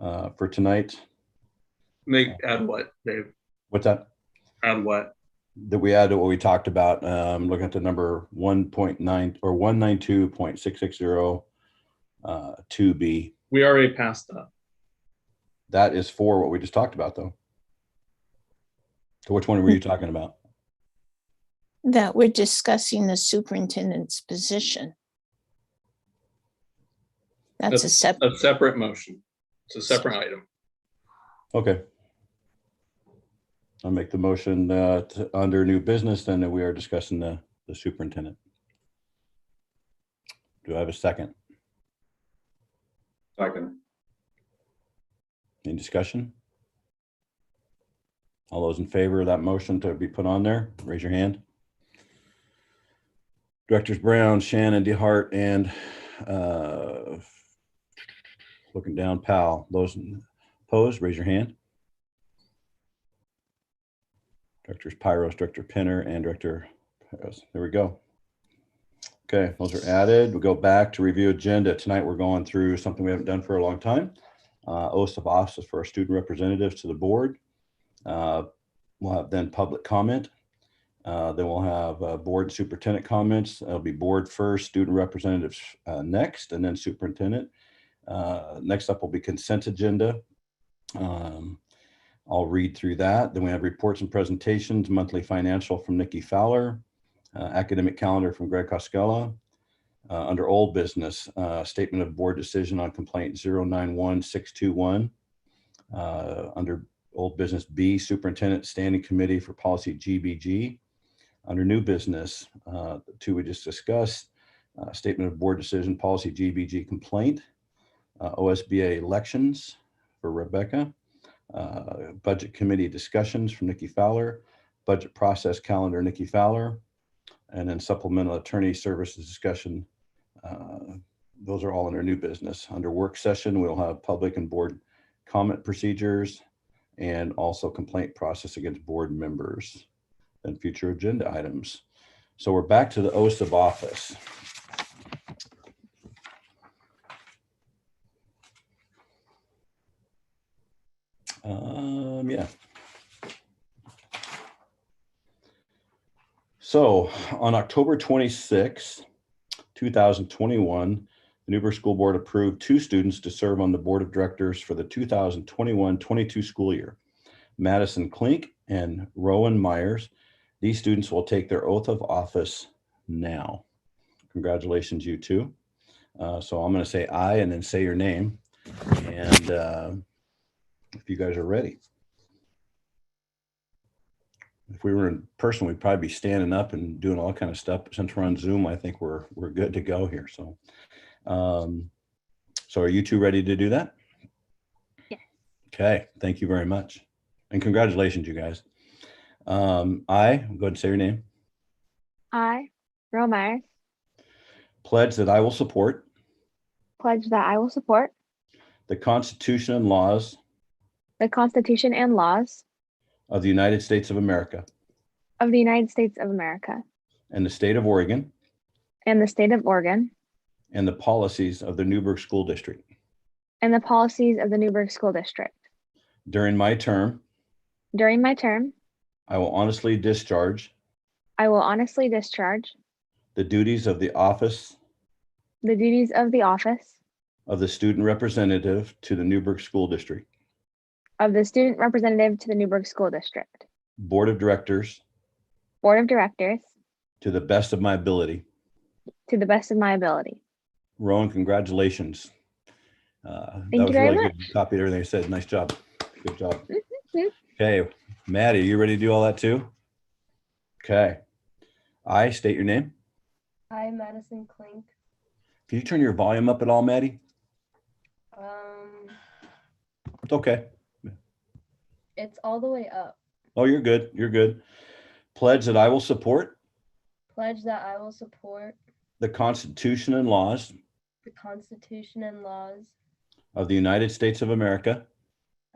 uh, for tonight. Make, add what, Dave? What's that? Add what? That we add to what we talked about, um, looking at the number one point nine or one nine two point six six zero, uh, two B. We already passed that. That is for what we just talked about though. So which one were you talking about? that we're discussing the superintendent's position. That's a sep, A separate motion. It's a separate item. Okay. I'll make the motion, uh, to, under new business, then that we are discussing the, the superintendent. Do I have a second? Second. Any discussion? All those in favor of that motion to be put on there, raise your hand. Directors Brown, Shannon, DeHart, and uh, looking down, Powell. Those opposed, raise your hand. Directors Pyros, Director Pinner, and Director Pyros. There we go. Okay, those are added. We go back to review agenda. Tonight, we're going through something we haven't done for a long time uh, oath of office for our student representatives to the board. Uh, We'll have then public comment. Uh, Then we'll have uh, board superintendent comments. It'll be board first, student representatives uh, next, and then superintendent. Uh, Next up will be consent agenda. Um, I'll read through that. Then we have reports and presentations, monthly financial from Nikki Fowler, uh, academic calendar from Greg Costello, uh, under old business, uh, statement of board decision on complaint 091621. Uh, under old business B, superintendent standing committee for policy GBG. Under new business, uh, the two we just discussed, uh, statement of board decision, policy GBG complaint, uh, OSBA elections for Rebecca, uh, budget committee discussions from Nikki Fowler, budget process calendar, Nikki Fowler, and then supplemental attorney services discussion uh, Those are all under new business. Under work session, we'll have public and board comment procedures and also complaint process against board members and future agenda items. So we're back to the oath of office. Um, yeah. So on October 26th, 2021, the Newburgh School Board approved two students to serve on the Board of Directors for the 2021-22 school year. Madison Klink and Rowan Myers. These students will take their oath of office now. Congratulations, you two. Uh, So I'm going to say aye and then say your name. And uh, if you guys are ready. If we were in person, we'd probably be standing up and doing all kind of stuff. But Since we're on Zoom, I think we're, we're good to go here, so. um, So are you two ready to do that? Yes. Okay, thank you very much. And congratulations, you guys. Um, I, go ahead and say your name, I, Roe Myers, pledge that I will support pledge that I will support the Constitution and laws the Constitution and laws of the United States of America of the United States of America and the state of Oregon and the state of Oregon and the policies of the Newburgh School District. and the policies of the Newburgh School District. During my term, During my term, I will honestly discharge I will honestly discharge the duties of the office the duties of the office of the student representative to the Newburgh School District of the student representative to the Newburgh School District Board of Directors Board of Directors to the best of my ability. to the best of my ability. Rowan, congratulations. Uh, that you was very really good. You Copied everything I said. Nice job. Good job. mhm. Okay, Maddie, you ready to do all that too? Okay. I state your name. Hi, Madison Klink. Can you turn your volume up at all, Maddie? Um, It's okay. it's all the way up. Oh, you're good. You're good. Pledge that I will support Pledge that I will support the Constitution and laws the Constitution and laws of the United States of America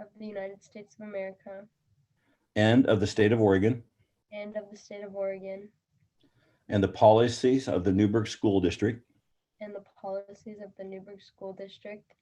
of the United States of America and of the state of Oregon and of the state of Oregon and the policies of the Newburgh School District and the policies of the Newburgh School District